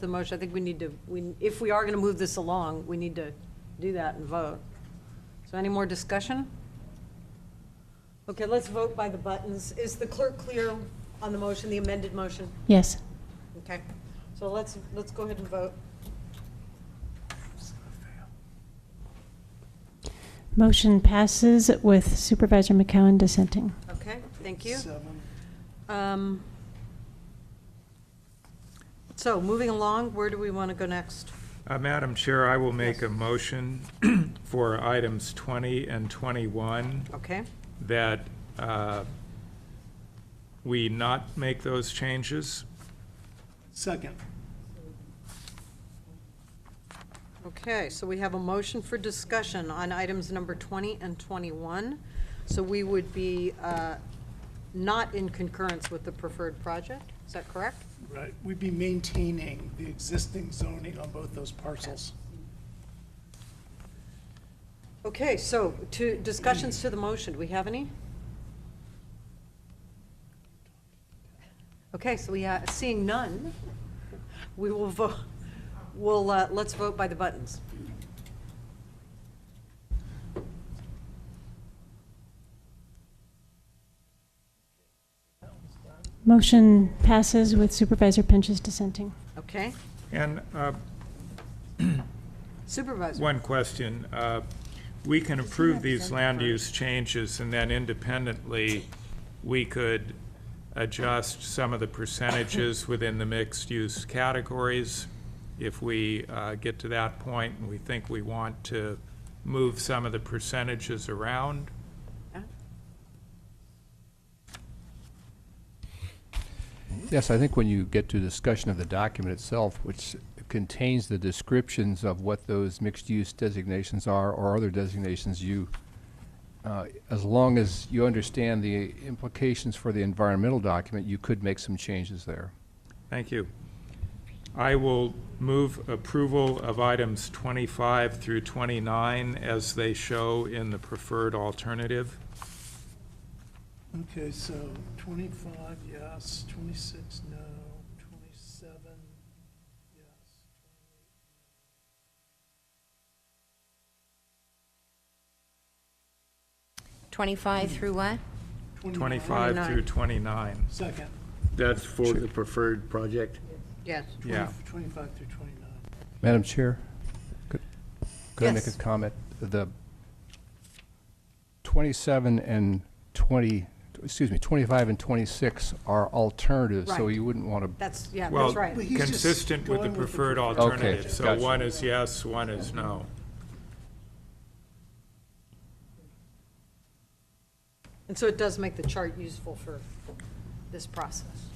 the motion, I think we need to, we, if we are going to move this along, we need to do that and vote. So any more discussion? Okay, let's vote by the buttons. Is the clerk clear on the motion, the amended motion? Yes. Okay, so let's, let's go ahead and vote. Motion passes with Supervisor McCowan dissenting. Okay, thank you. Seven. Um, So moving along, where do we want to go next? Uh, Madam Chair, I will make a motion for items 20 and 21 Okay, that uh, we not make those changes. Second. okay, so we have a motion for discussion on items number 20 and 21. So we would be uh, not in concurrence with the preferred project, is that correct? Right, we'd be maintaining the existing zoning on both those parcels. Okay, so to, discussions to the motion, do we have any? Okay, so we, uh, seeing none, we will vote, we'll, uh, let's vote by the buttons. Motion passes with Supervisor Pinches dissenting. Okay, And uh, Supervisor? one question, uh, we can approve these land use changes, and then independently, we could adjust some of the percentages within the mixed-use categories if we uh, get to that point and we think we want to move some of the percentages around. Yes, I think when you get to discussion of the document itself, which contains the descriptions of what those mixed-use designations are or other designations you, uh, as long as you understand the implications for the environmental document, you could make some changes there. Thank you. I will move approval of items 25 through 29 as they show in the preferred alternative. Okay, so twenty-five, yes, twenty-six, no, twenty-seven, yes. Twenty-five through what? 29. 25 through 29, Second. That's for the preferred project? Yes. yeah. 20 Twenty-five through twenty-nine. Madam Chair, could, could I make a Yes. comment? The twenty-seven and twenty, excuse me, twenty-five and twenty-six are alternatives, so Right. you wouldn't want to That's, yeah, Well, that's right. But he's just consistent with the going with the preferred preferred alternative. Okay, So gotcha. one is yes, one is no. And so it does make the chart useful for this process.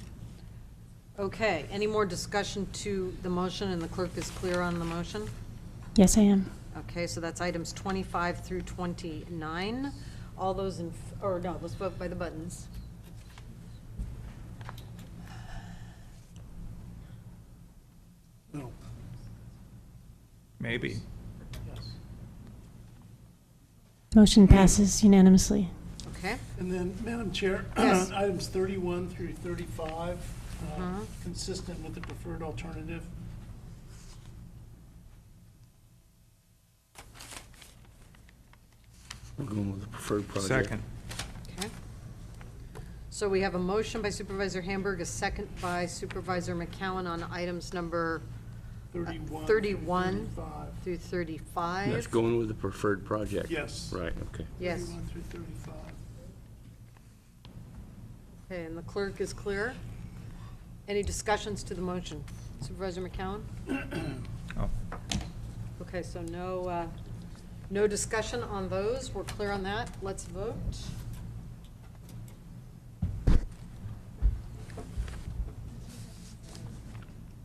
Okay, any more discussion to the motion, and the clerk is clear on the motion? Yes, I am. Okay, so that's items 25 through 29. All those in, f- or no, let's vote by the buttons. No, Oh. Maybe. yes. Motion passes unanimously. Okay, And then, Madam Chair, Yes. items 31 through 35, uh, Mm-hmm. consistent with the preferred alternative. Uh, We're going with the preferred project. Second. okay. So we have a motion by Supervisor Hamburg, a second by Supervisor McCowan on items number 31 through 31 35. through 35. That's going with the preferred project? Yes. Right, okay. Yes. 31 through 35. Okay, and the clerk is clear. Any discussions to the motion? Supervisor McCowan? Oh. Okay, so no, uh, no discussion on those. We're clear on that. Let's vote.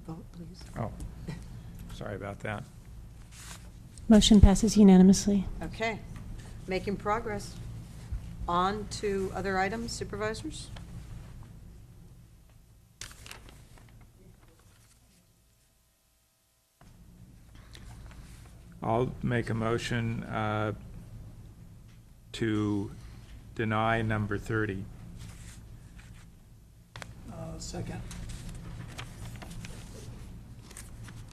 Vote, please. Oh, sorry about that. Motion passes unanimously. Okay, making progress. On to other items, supervisors? I'll make a motion uh, to deny number 30. Uh, Second.